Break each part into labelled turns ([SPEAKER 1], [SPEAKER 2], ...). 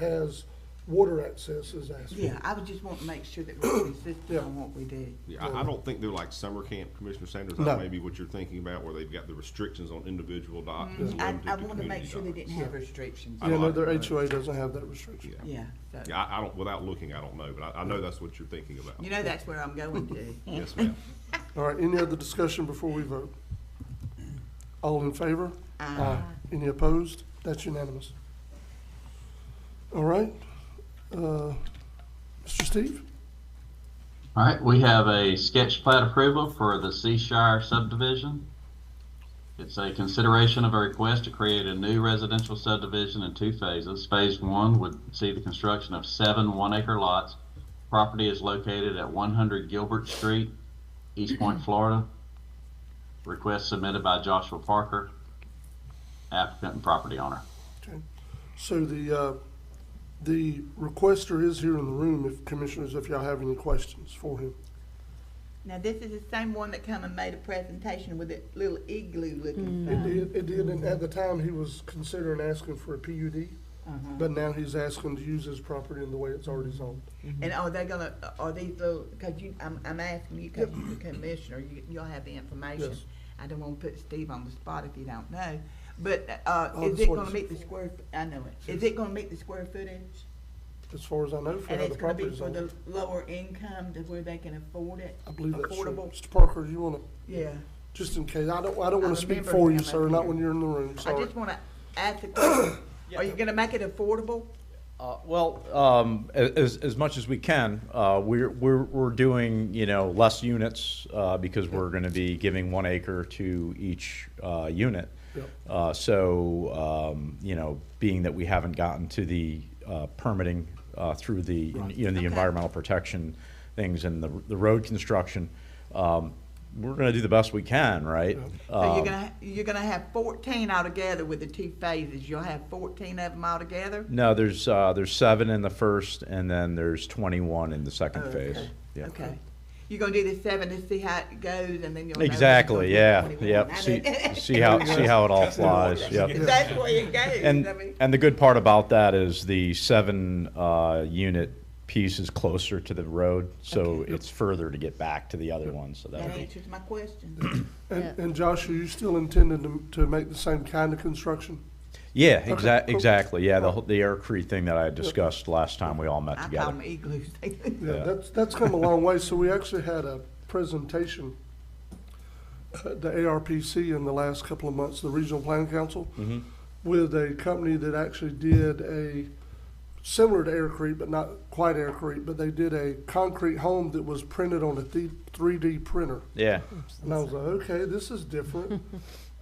[SPEAKER 1] has water access as asphalt.
[SPEAKER 2] Yeah, I would just want to make sure that we're consistent
[SPEAKER 1] Yeah.
[SPEAKER 2] on what we do.
[SPEAKER 3] Yeah, I, I don't think they're like summer camp, Commissioner Sanders,
[SPEAKER 1] No.
[SPEAKER 3] that may be what you're thinking about, where they've got the restrictions on individual docks. and
[SPEAKER 2] Mm, I,
[SPEAKER 3] limited
[SPEAKER 2] I want to make
[SPEAKER 3] community
[SPEAKER 2] sure they didn't
[SPEAKER 3] docks.
[SPEAKER 2] have restrictions.
[SPEAKER 1] Yeah, no, their HOA doesn't have that restriction.
[SPEAKER 3] Yeah.
[SPEAKER 2] Yeah, so,
[SPEAKER 3] Yeah, I, I don't, without looking, I don't know, but I, I know that's what you're thinking about.
[SPEAKER 2] you know, that's where I'm going to.
[SPEAKER 3] Yes, ma'am.
[SPEAKER 1] All right, any other discussion before we vote? All in favor? Aye. Any opposed? That's unanimous. All right, uh, Mr. Steve?
[SPEAKER 4] All right, we have a sketch plat approval for the Seashire subdivision. It's a consideration of a request to create a new residential subdivision in two phases. Phase one would see the construction of seven one-acre lots. Property is located at 100 Gilbert Street, East Point, Florida. Request submitted by Joshua Parker, applicant and property owner.
[SPEAKER 1] Okay. So the, uh, the requester is here in the room, if commissioners, if y'all have any questions for him.
[SPEAKER 2] Now, this is the same one that come and made a presentation with that little igloo
[SPEAKER 1] Mm.
[SPEAKER 2] looking
[SPEAKER 1] It
[SPEAKER 2] thing.
[SPEAKER 1] did, it did, and at the time, he was considering asking for a PUD,
[SPEAKER 2] Uh-huh.
[SPEAKER 1] but now he's asking to use his property in the way it's already zoned.
[SPEAKER 2] And are they gonna, are these little, cause you, I'm, I'm asking you, cause you're the commissioner, you, you'll have the information.
[SPEAKER 1] Yes.
[SPEAKER 2] I don't wanna put Steve on the spot if you don't know, but, uh,
[SPEAKER 1] Oh,
[SPEAKER 2] is
[SPEAKER 1] that's
[SPEAKER 2] it
[SPEAKER 1] what
[SPEAKER 2] gonna meet
[SPEAKER 1] it's-
[SPEAKER 2] the square, f- I know it, is it gonna meet the square footage?
[SPEAKER 1] As far as I know, for
[SPEAKER 2] And
[SPEAKER 1] how
[SPEAKER 2] it's
[SPEAKER 1] the
[SPEAKER 2] gonna
[SPEAKER 1] property
[SPEAKER 2] be
[SPEAKER 1] is
[SPEAKER 2] for
[SPEAKER 1] zoned.
[SPEAKER 2] the lower income to where they can afford it?
[SPEAKER 1] I believe that's true.
[SPEAKER 2] affordable?
[SPEAKER 1] Mr. Parker, you wanna,
[SPEAKER 2] Yeah,
[SPEAKER 1] just in case, I don't, I don't
[SPEAKER 2] I
[SPEAKER 1] wanna speak
[SPEAKER 2] remember
[SPEAKER 1] for you,
[SPEAKER 2] him
[SPEAKER 1] sir,
[SPEAKER 2] up
[SPEAKER 1] not
[SPEAKER 2] here.
[SPEAKER 1] when you're in the room,
[SPEAKER 2] I
[SPEAKER 1] sorry.
[SPEAKER 2] just wanna ask the question, are you gonna make it affordable?
[SPEAKER 5] Uh, Well, um, a- as, as much as we can, uh, we're, we're, we're doing, you know, less units, uh, because we're gonna be giving one acre to each, uh, unit.
[SPEAKER 1] Yep.
[SPEAKER 5] Uh, so, um, you know, being that we haven't gotten to the, uh, permitting, uh, through the, you know, the
[SPEAKER 2] Okay.
[SPEAKER 5] environmental protection things and the, the road construction, um, we're gonna do the best we can, right?
[SPEAKER 2] So you're
[SPEAKER 5] Um,
[SPEAKER 2] gonna, you're gonna have fourteen altogether with the two phases, you'll have fourteen of them altogether?
[SPEAKER 5] No, there's, uh, there's seven in the first, and then there's twenty-one in the second
[SPEAKER 2] Oh, Okay.
[SPEAKER 5] phase. Yeah.
[SPEAKER 2] Okay. You're gonna do the seven to see how it goes and then you'll. know when it's gonna
[SPEAKER 5] Exactly,
[SPEAKER 2] be
[SPEAKER 5] yeah,
[SPEAKER 2] 21.
[SPEAKER 5] yep.
[SPEAKER 2] I
[SPEAKER 5] See,
[SPEAKER 2] mean,
[SPEAKER 5] see how, see how it all flies, yep.
[SPEAKER 2] That's where it goes. I
[SPEAKER 5] And,
[SPEAKER 2] mean,
[SPEAKER 5] and the good part about that is the seven, uh, unit piece is closer to the road, so
[SPEAKER 2] Okay.
[SPEAKER 5] it's further to get back to the other one, so
[SPEAKER 2] That
[SPEAKER 5] that'll be.
[SPEAKER 2] answers my question.
[SPEAKER 1] And, and Josh, are you still intending to, to make the same kind of construction?
[SPEAKER 5] Yeah, exac-
[SPEAKER 1] cool.
[SPEAKER 5] exactly, yeah, the, whole- the air creek thing that I discussed last time we all met
[SPEAKER 2] Oh. I call
[SPEAKER 5] together.
[SPEAKER 2] them igloos.
[SPEAKER 1] Yeah,
[SPEAKER 5] Yeah.
[SPEAKER 1] that's, that's come a long way, so we actually had a presentation at the ARPC in the last couple of months, the Regional Planning Council, with a company that actually did a, similar to Air Creek, but not quite Air Creek, but they did a concrete home that was printed on a three D printer.
[SPEAKER 5] Yeah,
[SPEAKER 1] And I was like, okay, this is different.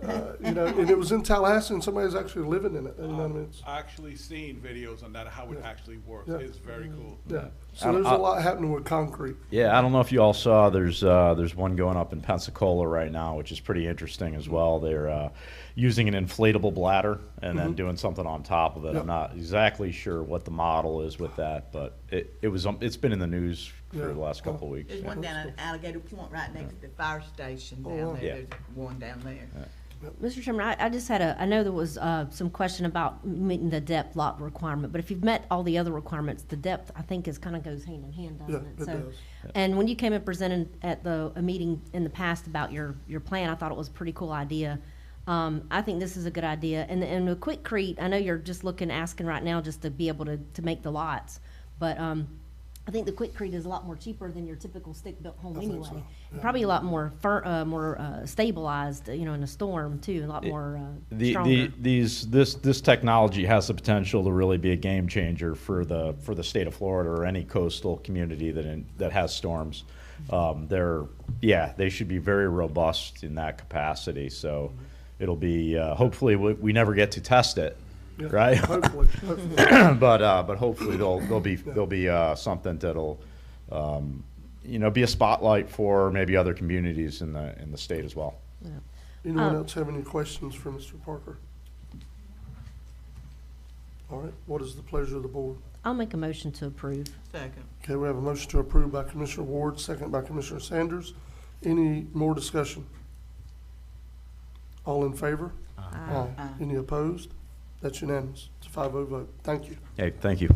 [SPEAKER 1] Uh, You know, and it was in Tallahassee, and somebody's actually living in it, and I mean, it's,
[SPEAKER 6] I actually seen videos on that, how it actually works.
[SPEAKER 1] Yeah.
[SPEAKER 6] It's very cool.
[SPEAKER 1] yeah. So there's a lot happening with concrete.
[SPEAKER 5] yeah, I don't know if you all saw, there's, uh, there's one going up in Pensacola right now, which is pretty interesting as well. They're, uh, using an inflatable bladder and then doing something on top of it.
[SPEAKER 1] Mm-hmm. Yep.
[SPEAKER 5] I'm not exactly sure what the model is with that, but it, it was, um, it's been in the news
[SPEAKER 1] Yeah.
[SPEAKER 5] for the last couple of weeks.
[SPEAKER 2] There's
[SPEAKER 5] yeah.
[SPEAKER 2] one down at Alligator Point right next to the fire station
[SPEAKER 1] Oh, wow.
[SPEAKER 2] down there.
[SPEAKER 5] Yeah.
[SPEAKER 2] There's one down there.
[SPEAKER 7] Mr. Chairman, I, I just had a, I know there was, uh, some question about meeting the depth lot requirement, but if you've met all the other requirements, the depth, I think, is kind of goes hand in hand, doesn't
[SPEAKER 1] Yeah,
[SPEAKER 7] it?
[SPEAKER 1] it
[SPEAKER 7] So,
[SPEAKER 1] does.
[SPEAKER 7] And when you came and presented at the, a meeting in the past about your, your plan, I thought it was a pretty cool idea. Um, I think this is a good idea. And, and with Quickcrete, I know you're just looking, asking right now just to be able to, to make the lots, but, um, I think the Quickcrete is a lot more cheaper than your typical stick-built home
[SPEAKER 1] think
[SPEAKER 7] anyway.
[SPEAKER 1] so,
[SPEAKER 7] And Probably a lot more fir, uh, more, uh, stabilized, you know, in a storm too, a lot more, uh,
[SPEAKER 5] The, the,
[SPEAKER 7] stronger.
[SPEAKER 5] these, this, this technology has the potential to really be a game changer for the, for the state of Florida or any coastal community that, in- that has storms. Um, they're, yeah, they should be very robust in that capacity, so it'll be, uh, hopefully, we, we never get to test it,
[SPEAKER 1] Yeah,
[SPEAKER 5] right?
[SPEAKER 1] Hopefully, hopefully.
[SPEAKER 5] but uh, but hopefully there'll there'll be there'll be uh, something that'll um, you know be a spotlight for maybe other communities in the in the state as well.
[SPEAKER 1] Anyone else have any questions for Mr. Parker? All right, what is the pleasure of the board?
[SPEAKER 7] I'll make a motion to approve.
[SPEAKER 2] Second.
[SPEAKER 1] Okay, we have a motion to approve by Commissioner Ward, second by Commissioner Sanders. Any more discussion? All in favor? Aye. Any opposed? That's unanimous. It's a 5-0 vote. Thank you.
[SPEAKER 5] Hey, thank you.